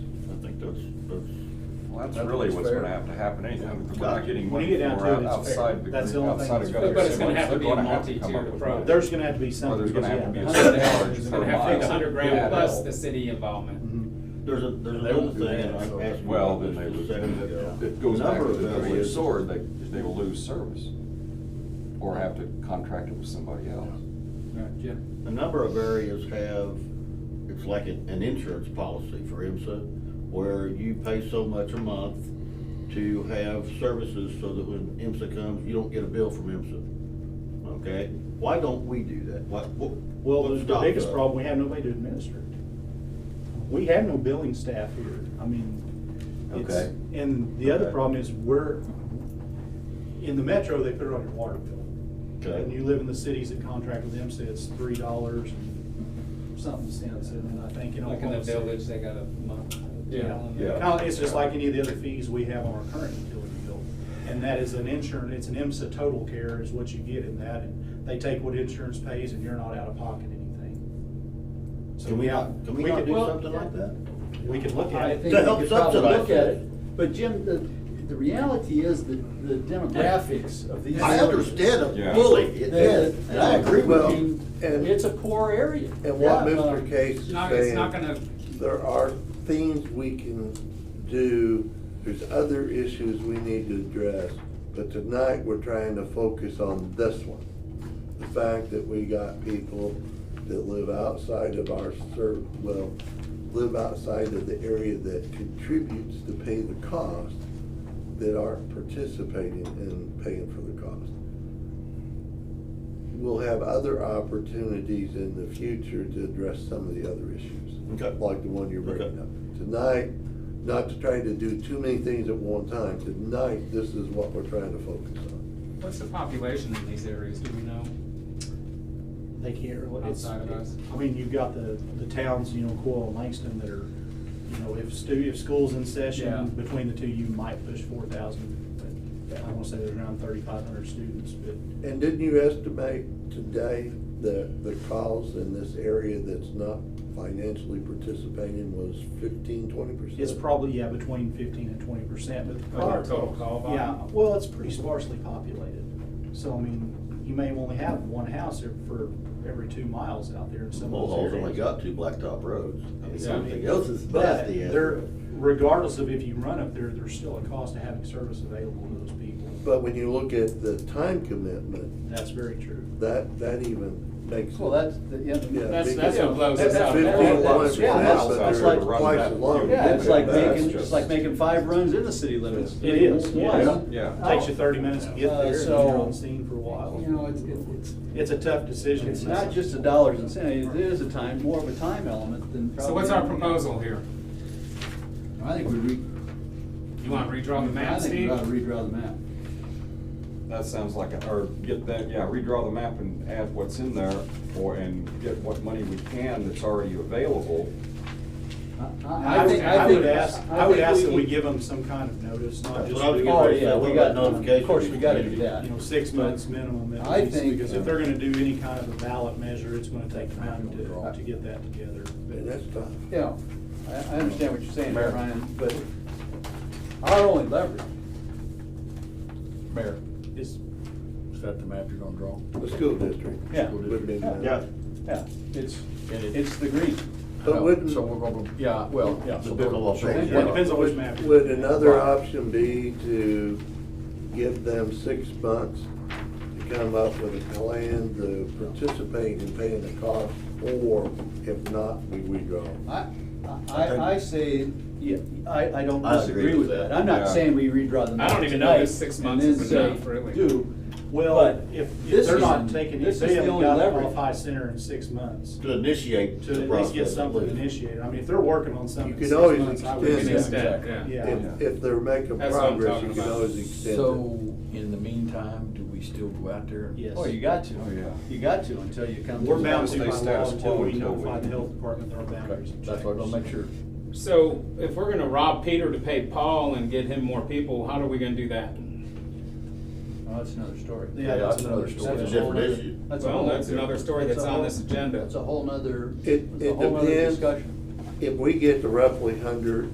that's That's really what's fair. gonna have to happen anyhow, because we're not getting When you money get down for to it, it's fair. outside the, That's the only thing outside of that's gutter. fair. But it's gonna have to be a multi-tiered approach. There's gonna have to be Well, something. there's gonna have to be a because, surcharge yeah, for there's It's gonna gonna have to miles. be a hundred Yeah. grand plus the city involvement. Mhm. There's a, there's They won't another do thing, and that, so- I asked. Well, then they just would, a second ago. it goes back to Number the of double-edged those- sword, they, they will lose service, or have to contract it with somebody else. Jim? A number of areas have, it's like an an insurance policy for IMSA, where you pay so much a month to have services so that when IMSA comes, you don't get a bill from IMSA. Okay? Why don't we do that? What, what? Well, what the- the stopped biggest us? problem, we have nobody to administer it. We have no billing staff here. I mean, it's, Okay. and the other Okay. problem is we're, in the metro, they put it on your water bill. Okay. And you live in the cities that contract with them, so it's three dollars and something cents, and I think in Like in the Oklahoma City- village, they got a month. Yeah. No, it's just like any of the other fees we have on our current utility bill. And that is an insurance, it's an IMSA total care is what you get in that, and they take what insurance pays and you're not out of pocket anything. So Can we we, not, can we not do could do, well- something like that? we could look at I it. think To we help could probably subsidize look at it. it, but Jim, the, the reality is that the demographics of these. I areas- understand Yeah. it fully, the- it the- is, and I agree well, with you. and- It's a poor area. And Yeah. what Mr. Case It's is not, it's not saying, gonna, there are things we can do, there's other issues we need to address, but tonight, we're trying to focus on this one. The fact that we got people that live outside of our ser, well, live outside of the area that contributes to pay the cost, that aren't participating in paying for the cost we'll have other opportunities in the future to address some of the other issues. Okay. Like the one you're bringing Okay. up. Tonight, not to try to do too many things at one time, tonight, this is what we're trying to focus on. what's the population in these areas, do we know? They can't really, it's, Outside of us. I mean, you've got the, the towns, you know, Coyle and Langston that are, you know, if stu, if school's in Yeah. session, between the two, you might push four thousand. I wanna say there's around thirty-five hundred students, but And didn't you estimate today the, the cost in this area that's not financially participating was fifteen, twenty percent? It's probably, yeah, between fifteen and twenty percent, but the prior. Of the total call volume? Yeah, well, it's pretty sparsely populated, so I mean, you may only have one house ev- for every two miles out there in some of those Mulhall's only areas. got two blacktop roads. I mean, Yeah. everything else is But nasty. out there, there. regardless of if you run up there, there's still a cost to having service available to those people, But when you look at the time commitment, that's very true. that, that even makes. Well, that's, the- yeah, Yeah, that's, big- that's Yeah, what blows us that's out. fifteen Yeah, miles yeah, per that's- hour. that's Outside like- of the run twice that as long. you- Yeah, it's like That's making, just- it's like making five runs in the city limits. It is, One. yes. Yeah. Takes you thirty minutes to get Uh, there, and so- you're on scene for a while. You know, it's, it's, It's a tough decision. it's not just the dollars and cents, it is a time, more of a time element than probably. So what's our proposal here? I think we re. You wanna redraw the map, Steve? I think we gotta redraw the map. That sounds like, a- or get that, yeah, redraw the map and add what's in there, or, and get what money we can that's already available. I- I would, think- I think- would ask, I would think ask that we give them some kind of notice, not That's just. what I was you getting Oh, ready to yeah, say, we what got, about of notification course, we gotta do community? that. know, six months minimum at I least, think- Because if they're gonna do any kind of a ballot measure, it's gonna take time to, to get that together. And that's tough. Yeah, I, I understand what you're saying, Mayor. Ryan, but our only leverage, Mayor. Is, Is that the map you're gonna draw? The school district. Yeah. Would be my- Yeah. yeah, it's, And it- it's the green. But wouldn't, So we're gonna, yeah, well, yeah. So we're gonna all change it depends on which map. would another option be to give them six months to come up with a plan to participate in paying the cost? Or if not, we withdraw. I, I, I say, yeah, I, I don't I agree disagree with with that. that. I'm not Yeah. saying we redraw the I map don't even know if tonight six and months then is say enough, really. Do, well, But if, if this they're not is- taking, if this is they the haven't only got leverage. off high center in six months, To initiate to the at least get process. I something believe. initiated, I mean, if they're working on something You in could six always months, I would. extend think- that. Instead, yeah. Yeah. If, if they're making That's what I'm progress, you talking can about. always extend it. So, in the meantime, do we still go out there? Yes. oh, you got to. Oh, yeah. You got to until you come. We're bound to Stay by law status until quo we until notify we- the health department there are boundaries. Okay, and That's what, I'll checks. make sure. So if we're gonna rob Peter to pay Paul and get him more people, how are we gonna do that? Oh, that's another story. Yeah, that's another story. That's a different issue. a Well, whole that's nother- another story that's a on whole- this agenda. That's a whole nother, It- that's a it whole nother depends. discussion. If we get to roughly hundred